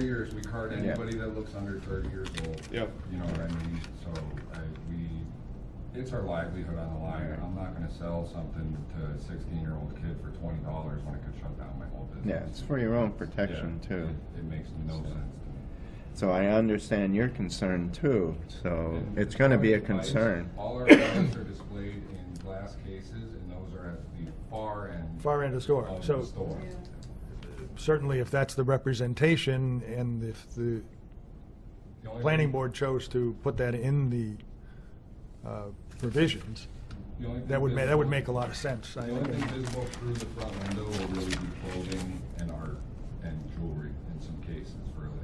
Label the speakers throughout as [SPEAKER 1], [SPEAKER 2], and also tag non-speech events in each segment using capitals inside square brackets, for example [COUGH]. [SPEAKER 1] years, we card
[SPEAKER 2] Yeah.
[SPEAKER 1] anybody that looks under thirty years old.
[SPEAKER 2] Yep.
[SPEAKER 1] You know what I mean? So I, we, it's our livelihood on the line.
[SPEAKER 2] Right.
[SPEAKER 1] I'm not gonna sell something to a sixteen-year-old kid for twenty dollars when it could shut down my whole business.
[SPEAKER 2] Yeah, it's for your own protection
[SPEAKER 1] Yeah,
[SPEAKER 2] too.
[SPEAKER 1] it- It makes no sense to me.
[SPEAKER 2] So I understand your concern too, so
[SPEAKER 1] And
[SPEAKER 2] oh, it's gonna be a
[SPEAKER 1] all our lights-
[SPEAKER 2] concern.
[SPEAKER 1] All
[SPEAKER 2] [COUGHS]
[SPEAKER 1] our lights are displayed in glass cases and those are at the far end
[SPEAKER 3] far end of the store.
[SPEAKER 1] of the
[SPEAKER 3] So
[SPEAKER 1] store.
[SPEAKER 3] certainly if that's the representation and if
[SPEAKER 1] The
[SPEAKER 3] the
[SPEAKER 1] only
[SPEAKER 3] planning
[SPEAKER 1] thing-
[SPEAKER 3] board chose to put that in the uh, provisions,
[SPEAKER 1] the only thing
[SPEAKER 3] that would, ma- that would
[SPEAKER 1] visible-
[SPEAKER 3] make a lot of sense. I
[SPEAKER 1] The only
[SPEAKER 3] think.
[SPEAKER 1] thing visible through the front window will really be clothing and art and jewelry in some cases, really.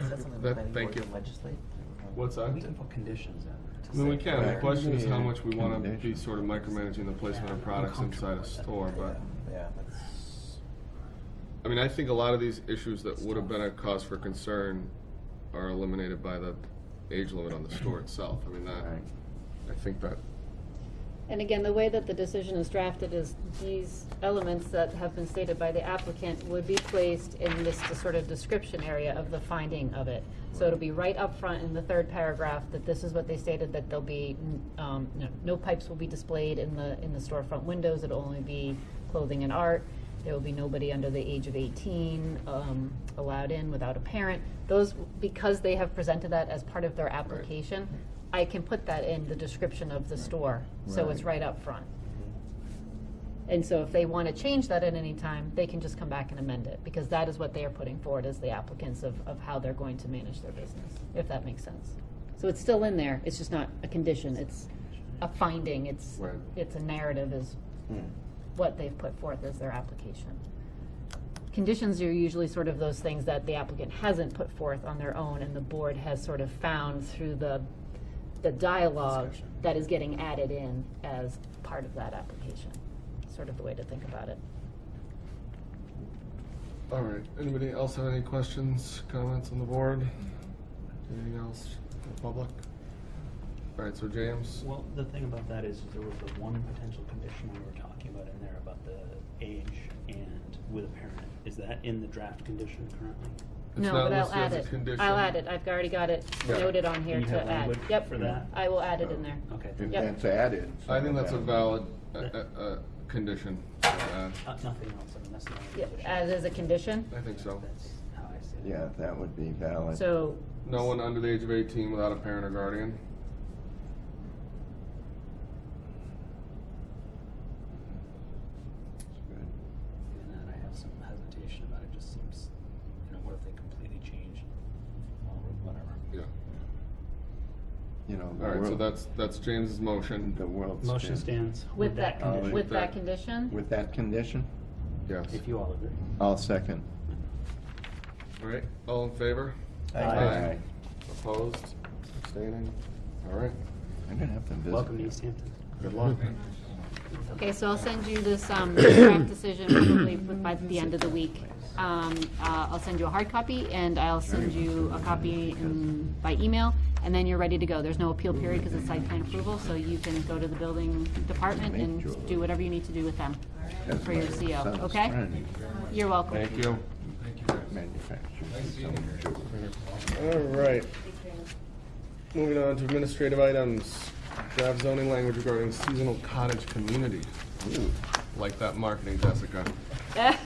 [SPEAKER 4] Is that something the
[SPEAKER 5] That-
[SPEAKER 4] planning
[SPEAKER 5] thank
[SPEAKER 4] board
[SPEAKER 5] you.
[SPEAKER 4] can legislate?
[SPEAKER 5] What's that?
[SPEAKER 4] We can put conditions in. to
[SPEAKER 5] I mean, we
[SPEAKER 4] say-
[SPEAKER 5] can. The
[SPEAKER 2] Right.
[SPEAKER 5] question is how
[SPEAKER 2] Yeah.
[SPEAKER 5] much we want to be
[SPEAKER 2] Condition.
[SPEAKER 5] sort of micromanaging the placement of products inside a store. But
[SPEAKER 4] Yeah, that's,
[SPEAKER 5] I mean, I think a lot of these issues that would have been a cause for concern are eliminated by the age limit on the store itself. I mean, that
[SPEAKER 2] Right.
[SPEAKER 5] I think that
[SPEAKER 6] And again, the way that the decision is drafted is these elements that have been stated by the applicant would be placed in this sort of description area of the finding of it. So it'll be right up front in the third paragraph that this is what they stated, that there'll be, um, you know, no pipes will be displayed in the, in the storefront windows, it'll only be clothing and art. There will be nobody under the age of eighteen, um, allowed in without a parent. Those, because they have presented that as part of their application, I can put that in the description of the store, so it's right up front. And so if they want to change that at any time, they can just come back and amend it, because that is what they are putting forward as the applicants of, of how they're going to manage their business, if that makes sense. So it's still in there, it's just not a condition, it's a finding, it's,
[SPEAKER 5] Right.
[SPEAKER 6] it's a narrative is what they've put forth as their application. Conditions are usually sort of those things that the applicant hasn't put forth on their own, and the board has sort of found through the, the dialogue that is getting added in as part of that application, sort of the way to think about it.
[SPEAKER 5] All right. Anybody else have any questions, comments on the board? Anything else from the public? All right. So James.
[SPEAKER 7] Well, the thing about that is there was the one potential condition we were talking about in there about the age and with a parent. Is that in the draft condition currently?
[SPEAKER 5] It's
[SPEAKER 6] No,
[SPEAKER 5] not
[SPEAKER 6] but I'll
[SPEAKER 5] listed
[SPEAKER 6] add
[SPEAKER 5] as a
[SPEAKER 6] it.
[SPEAKER 5] condition.
[SPEAKER 6] I'll add it. I've already got it
[SPEAKER 5] Yeah.
[SPEAKER 6] noted on here
[SPEAKER 7] Do you
[SPEAKER 6] to
[SPEAKER 7] have
[SPEAKER 6] add.
[SPEAKER 7] language
[SPEAKER 6] Yep.
[SPEAKER 7] for that?
[SPEAKER 6] I will add it in there.
[SPEAKER 7] Okay.
[SPEAKER 2] If
[SPEAKER 6] Yep.
[SPEAKER 2] that's added.
[SPEAKER 5] I think that's a
[SPEAKER 2] then-
[SPEAKER 5] valid uh, uh, uh, condition. to add.
[SPEAKER 7] Uh, nothing else, I mean, that's the only
[SPEAKER 6] Yep,
[SPEAKER 7] condition.
[SPEAKER 6] As is a condition.
[SPEAKER 5] I think so.
[SPEAKER 7] That's how I see it.
[SPEAKER 2] Yeah, that would be valid.
[SPEAKER 6] So,
[SPEAKER 5] No one under the age of 18 without a parent or guardian.
[SPEAKER 2] That's good.
[SPEAKER 7] Even that, I have some hesitation about it, It just seems, you know, what if they completely change, or whatever.
[SPEAKER 5] Yeah.
[SPEAKER 2] You know,
[SPEAKER 5] All right. So
[SPEAKER 2] the world,
[SPEAKER 5] that's that's James's motion.
[SPEAKER 2] the world.
[SPEAKER 7] Motion
[SPEAKER 2] stand-
[SPEAKER 7] stands
[SPEAKER 6] with that, con-
[SPEAKER 2] condition.
[SPEAKER 6] with that
[SPEAKER 5] That-
[SPEAKER 6] condition,
[SPEAKER 2] With that condition?
[SPEAKER 5] Yes.
[SPEAKER 7] If you all agree.
[SPEAKER 2] I'll second.
[SPEAKER 5] All right. All in favor?
[SPEAKER 2] Aye.
[SPEAKER 5] Opposed? Abstaining? All right.
[SPEAKER 2] I'm gonna have to visit.
[SPEAKER 7] Welcome to East Hampton.
[SPEAKER 2] [LAUGHS]
[SPEAKER 5] Good [LAUGHS] luck.
[SPEAKER 6] okay, so I'll send you this, um, [COUGHS] draft decision probably by the end of the week. Um, uh, I'll send you a hard copy and I'll send you a copy in, by email. And then you're ready to go. There's no appeal period because it's site plan approval, so you can go to the building department and do whatever you need to do with them.
[SPEAKER 2] That's
[SPEAKER 6] for your
[SPEAKER 2] my
[SPEAKER 6] CO,
[SPEAKER 2] son's
[SPEAKER 6] okay?
[SPEAKER 2] friend,
[SPEAKER 6] You're welcome.
[SPEAKER 5] Thank you.
[SPEAKER 2] Manufacturer.
[SPEAKER 5] [LAUGHS] All right. Moving on to administrative items. Draft zoning language regarding seasonal cottage community. Like that marketing, Jessica.
[SPEAKER 6] [LAUGHS]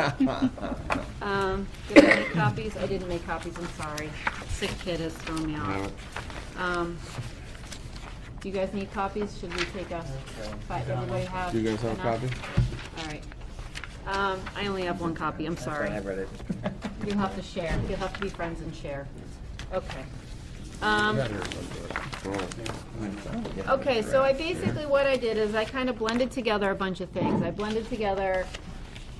[SPEAKER 2] [LAUGHS]
[SPEAKER 6] Um, did I make copies? I didn't make copies, I'm sorry. Sick kid has thrown me off. Um, do you guys need copies? Should we take a, five, everybody have?
[SPEAKER 5] Do you guys have a
[SPEAKER 6] enough?
[SPEAKER 5] copy?
[SPEAKER 6] All right. Um, I only have one copy, I'm
[SPEAKER 4] that's
[SPEAKER 6] sorry.
[SPEAKER 4] why I read it.
[SPEAKER 2] [LAUGHS]
[SPEAKER 6] You'll have to share. You'll have to be friends and share. Okay. Um, Okay, so I basically, what I did is I kind of blended together a bunch of things. I blended together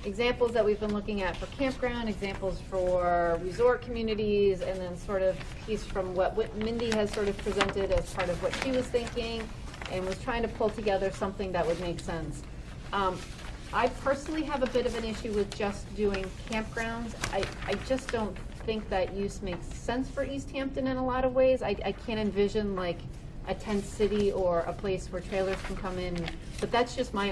[SPEAKER 6] examples that we've been looking at for campground, examples for resort communities, and then sort of piece from what what Mindy has sort of presented as part of what she was thinking, and was trying to pull together something that would make sense. Um, I personally have a bit of an issue with just doing campgrounds. I, I just don't think that use makes sense for East Hampton in a lot of ways. I, I can't envision like a tent city or a place where trailers can come in, but that's just my